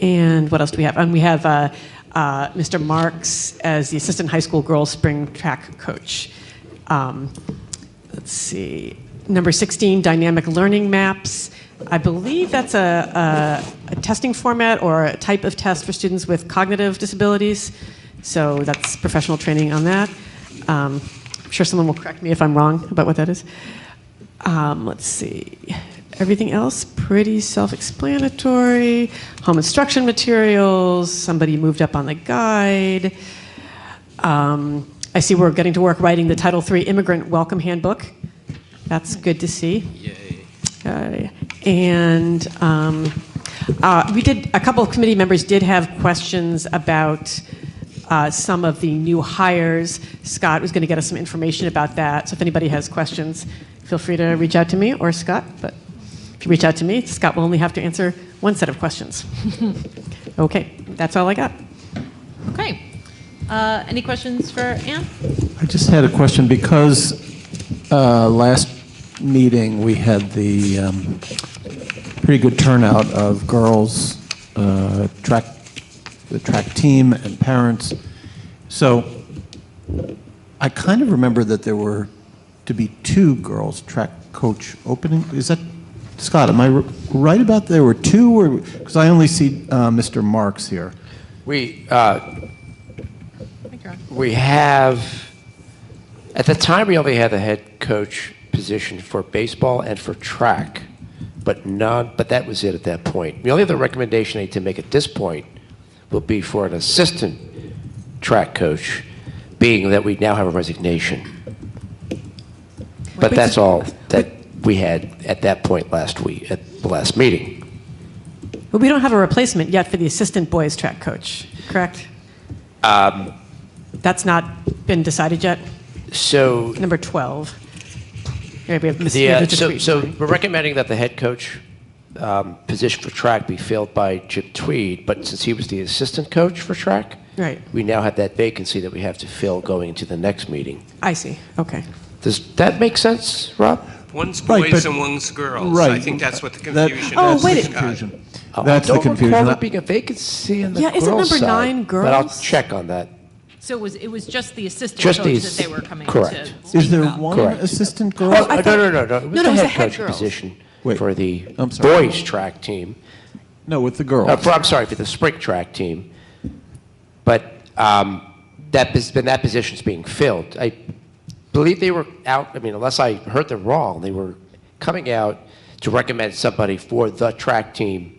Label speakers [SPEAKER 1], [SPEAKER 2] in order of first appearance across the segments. [SPEAKER 1] And what else do we have? And we have uh, uh, Mr. Marks as the assistant high school girls spring track coach. Um, let's see. Number 16, dynamic learning maps. I believe that's a, a, a testing format or a type of test for students with cognitive disabilities. So that's professional training on that. Um, I'm sure someone will correct me if I'm wrong about what that is. Um, let's see. Everything else pretty self-explanatory. Home instruction materials. Somebody moved up on the guide. Um, I see we're getting to work writing the Title III Immigrant Welcome Handbook. That's good to see. Okay. And um, uh, we did, a couple of committee members did have questions about uh, some of the new hires. Scott was going to get us some information about that, so if anybody has questions, feel free to reach out to me or Scott, but if you reach out to me, Scott will only have to answer one set of questions. Okay, that's all I got.
[SPEAKER 2] Okay. Uh, Any questions for Anne?
[SPEAKER 3] I just had a question, because uh, last meeting, we had the um, pretty good turnout of girls, uh, track, the track team and parents. So I kind of remember that there were to be two girls track coach opening. Is that, Scott, am I r- right about there were two? or Because I only see uh, Mr. Marks here.
[SPEAKER 4] We, uh, we have, at the time, we only had the head coach position for baseball and for track, but none, but that was it at that point. The only other recommendation I need to make at this point will be for an assistant track coach, being that we now have a resignation. But that's all that we had at that point last week, at the last meeting.
[SPEAKER 1] But we don't have a replacement yet for the assistant boys track coach, correct? That's not been decided yet?
[SPEAKER 4] So
[SPEAKER 1] Number 12. Yeah, we have Ms.
[SPEAKER 4] The,
[SPEAKER 1] yeah,
[SPEAKER 4] uh,
[SPEAKER 1] that's just
[SPEAKER 4] so,
[SPEAKER 1] read.
[SPEAKER 4] so we're recommending that the head coach um, position for track be filled by Chip Tweed, but since he was the assistant coach for track,
[SPEAKER 1] Right.
[SPEAKER 4] we now have that vacancy that we have to fill going into the next meeting.
[SPEAKER 1] I see, okay.
[SPEAKER 4] Does that make sense, Rob?
[SPEAKER 5] One's
[SPEAKER 3] Right,
[SPEAKER 5] boys
[SPEAKER 3] but-
[SPEAKER 5] and one's girls.
[SPEAKER 3] Right.
[SPEAKER 5] I think that's what the
[SPEAKER 3] That-
[SPEAKER 5] confusion is.
[SPEAKER 1] Oh,
[SPEAKER 3] that's the
[SPEAKER 1] wait a-
[SPEAKER 3] confusion.
[SPEAKER 4] Oh,
[SPEAKER 3] That's the
[SPEAKER 4] I don't recall
[SPEAKER 3] confusion.
[SPEAKER 4] there being a vacancy in the
[SPEAKER 1] Yeah, isn't
[SPEAKER 4] girls'
[SPEAKER 1] number
[SPEAKER 4] side,
[SPEAKER 1] nine
[SPEAKER 4] But I'll
[SPEAKER 1] girls?
[SPEAKER 4] check on that.
[SPEAKER 2] So it was, it was just the assistant coach
[SPEAKER 4] Just the
[SPEAKER 2] that they
[SPEAKER 4] ass-
[SPEAKER 2] were coming
[SPEAKER 4] correct.
[SPEAKER 2] to
[SPEAKER 3] Is
[SPEAKER 2] speak
[SPEAKER 3] there
[SPEAKER 2] about?
[SPEAKER 3] one
[SPEAKER 4] Correct.
[SPEAKER 3] assistant girl?
[SPEAKER 1] Oh, I
[SPEAKER 4] no,
[SPEAKER 1] thought-
[SPEAKER 4] no, no, no. It was
[SPEAKER 1] No, no,
[SPEAKER 4] the
[SPEAKER 1] it was
[SPEAKER 4] head
[SPEAKER 1] the head
[SPEAKER 4] coach
[SPEAKER 1] girls.
[SPEAKER 4] position
[SPEAKER 3] Wait,
[SPEAKER 4] for the
[SPEAKER 3] I'm sorry.
[SPEAKER 4] boys track team.
[SPEAKER 3] No, with the girls.
[SPEAKER 4] Uh, for- I'm sorry, for the spring track team. But um, that, pos- then that position's being filled. I believe they were out, I mean, unless I heard them wrong, they were coming out to recommend somebody for the track team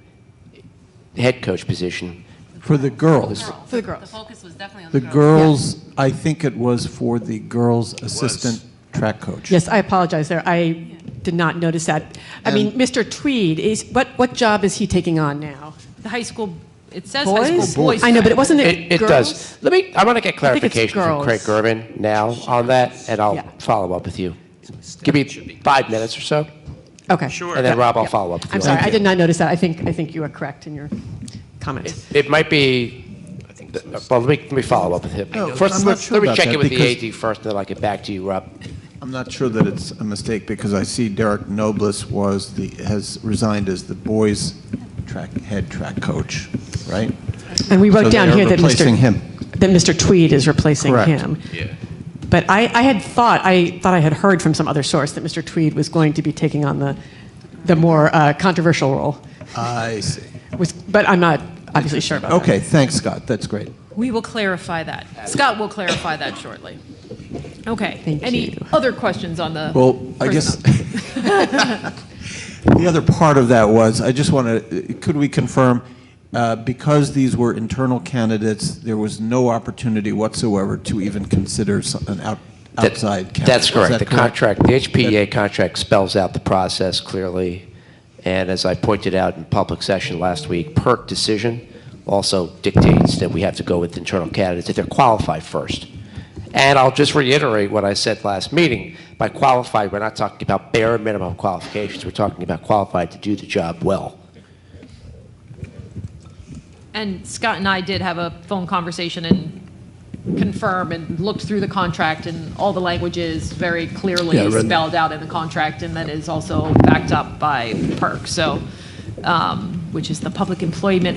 [SPEAKER 4] head coach position.
[SPEAKER 3] For the girls.
[SPEAKER 2] Girls.
[SPEAKER 1] For the girls.
[SPEAKER 2] focus was definitely on
[SPEAKER 3] The girls, I think it was for the girls' assistant track coach.
[SPEAKER 1] Yes, I apologize there. I did not notice that. I mean,
[SPEAKER 2] Um,
[SPEAKER 1] Mr. Tweed, is, what, what job is he taking on now?
[SPEAKER 2] The high school, it says high
[SPEAKER 1] Boys?
[SPEAKER 2] school boys.
[SPEAKER 1] I know, but it
[SPEAKER 2] track.
[SPEAKER 1] wasn't
[SPEAKER 4] It,
[SPEAKER 1] it
[SPEAKER 4] it
[SPEAKER 1] girls?
[SPEAKER 4] does. Let me, I want to get
[SPEAKER 1] I think it's
[SPEAKER 4] clarification from
[SPEAKER 1] girls.
[SPEAKER 4] Craig Gerben now on that, and
[SPEAKER 1] Yeah.
[SPEAKER 4] I'll follow up with you. Give me five minutes or so,
[SPEAKER 1] Okay.
[SPEAKER 5] Sure.
[SPEAKER 4] and then Rob, I'll
[SPEAKER 1] Yeah.
[SPEAKER 4] follow up with you.
[SPEAKER 1] I'm
[SPEAKER 4] on
[SPEAKER 1] sorry,
[SPEAKER 4] that.
[SPEAKER 1] I did not notice that. I think, I think you are correct in your comment.
[SPEAKER 4] It might be, well, let me, let me follow up with him.
[SPEAKER 3] No,
[SPEAKER 4] First,
[SPEAKER 3] I'm not
[SPEAKER 4] let
[SPEAKER 3] sure
[SPEAKER 4] let me
[SPEAKER 3] about
[SPEAKER 4] check
[SPEAKER 3] that
[SPEAKER 4] in with
[SPEAKER 3] because-
[SPEAKER 4] the AD first, then I'll get back to you, Rob.
[SPEAKER 3] I'm not sure that it's a mistake because I see Derek Nobles was the, has resigned as the boys' track, head track coach, right?
[SPEAKER 1] And we
[SPEAKER 3] So
[SPEAKER 1] wrote down
[SPEAKER 3] they're
[SPEAKER 1] here that Mr.
[SPEAKER 3] replacing him.
[SPEAKER 1] That Mr. Tweed is replacing
[SPEAKER 3] Correct.
[SPEAKER 1] him. But I, I had thought, I thought I had heard from some other source that Mr. Tweed was going to be taking on the, the more uh, controversial role.
[SPEAKER 3] I see.
[SPEAKER 1] Was, but I'm not obviously sure about that.
[SPEAKER 3] Okay, thanks, Scott. That's great.
[SPEAKER 2] We will clarify that. Scott will clarify that shortly. Okay.
[SPEAKER 1] Thank
[SPEAKER 2] Any
[SPEAKER 1] you.
[SPEAKER 2] other questions on the?
[SPEAKER 3] Well, I guess
[SPEAKER 2] personnel?
[SPEAKER 3] the other part of that was, I just want to, could we confirm, uh, because these were internal candidates, there was no opportunity whatsoever to even consider some- an out-
[SPEAKER 4] That-
[SPEAKER 3] outside candidate?
[SPEAKER 4] That's
[SPEAKER 3] Is
[SPEAKER 4] correct.
[SPEAKER 3] that
[SPEAKER 4] The contract, the HPEA contract spells out the process clearly, and as I pointed out in public session last week, PERC decision also dictates that we have to go with internal candidates if they're qualified first. And I'll just reiterate what I said last meeting. By qualified, we're not talking about bare minimum qualifications. We're talking about qualified to do the job well.
[SPEAKER 2] And Scott and I did have a phone conversation and confirm and looked through the contract and all the language is very
[SPEAKER 3] Yeah, I
[SPEAKER 2] clearly
[SPEAKER 3] read that.
[SPEAKER 2] spelled out in the contract and that is also backed up by PERC, so, um, which is the Public Employment